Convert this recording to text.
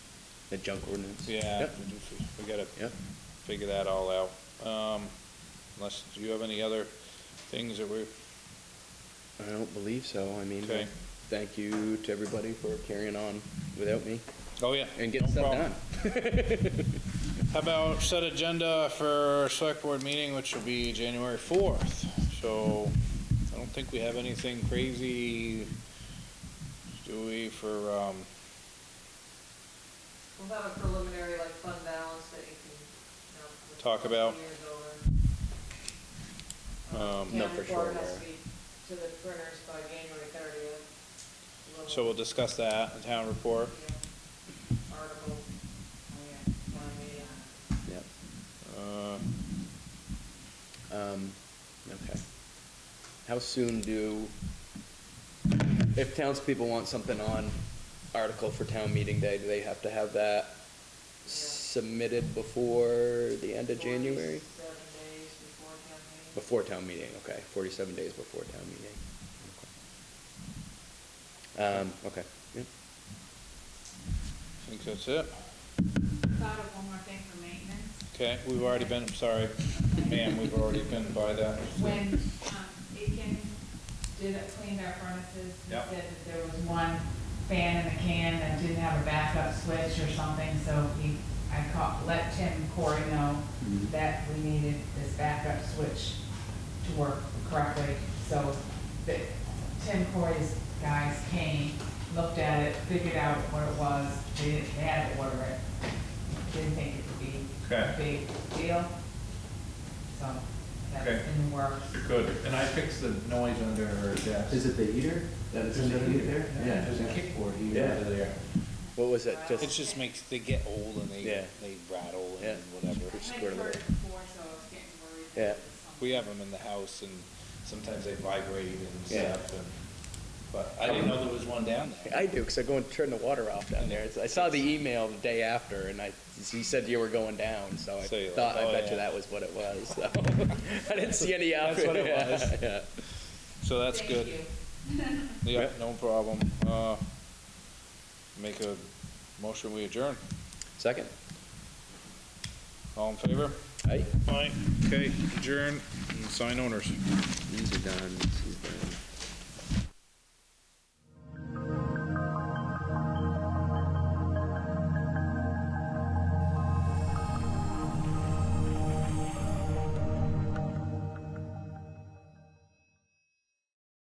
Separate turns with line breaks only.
the junk ordinance.
Yeah,
Yep.
we gotta
Yep.
figure that all out. Um, unless, do you have any other things that we're,
I don't believe so. I mean,
Okay.
thank you to everybody for carrying on without me
oh, yeah.
and getting
no
stuff
problem.
done.
How about set agenda for select board meeting, which will be January fourth? So I don't think we have anything crazy, do we, for, um,
We'll have a preliminary like fund balance that you can, you know. with
Talk
the
about.
years over.
Um,
Town
No, for sure,
report has
Laura.
to be to the printers by January thirtieth.
so we'll discuss that, the town report.
Article, oh yeah, town meeting on it.
Yep.
Uh,
Um, okay. How soon do, if townspeople want something on article for town meeting day, do they have to have that submitted before the end of January?
Forty-seven days before town meeting.
Before town meeting, okay, forty-seven days before town meeting. Okay. Um, okay, yep.
I think that's it.
Thought of one more thing for maintenance.
Okay, we've already been, sorry, ma'am, we've already been by that.
When um, Aiken did, cleaned our furnaces, he
Yep.
said that there was one fan in the can that didn't have a backup switch or something, so he, I caught, let Tim Corey know
Mm-hmm.
that we needed this backup switch to work correctly. So the, Tim Corey's guys came, looked at it, figured out what it was, they didn't, they had to order it. Didn't think it would be a big deal, so that's
Okay.
in the works.
Good, and I fixed the noise under her desk.
Is it the heater? That is in the heater there?
kickboard
Yeah. under
there.
What was it,
It
just,
just makes, they get old and they,
Yeah.
they rattle
Yeah.
and whatever.
Just
I
go to
had
the-
heard it before, so I was getting worried. that
Yeah.
it was something.
We have them in the house and sometimes they vibrate and
Yeah.
stuff and, but I didn't know there was one down there.
I do, cause I go and turn the water off down there, It's- I saw the email the day after, and I, he said you were going down, so I
So you're like,
thought, I
"Oh,
bet you
yeah."
that was what it was, so. I didn't see any out.
That's what it was.
Yeah.
So that's
Thank
good.
you.
Yeah,
Yeah.
no problem. Uh, make a motion, we adjourn.
Second,
All in favor?
aye?
Aye. Okay, adjourn and sign owners.
These are done, this is done.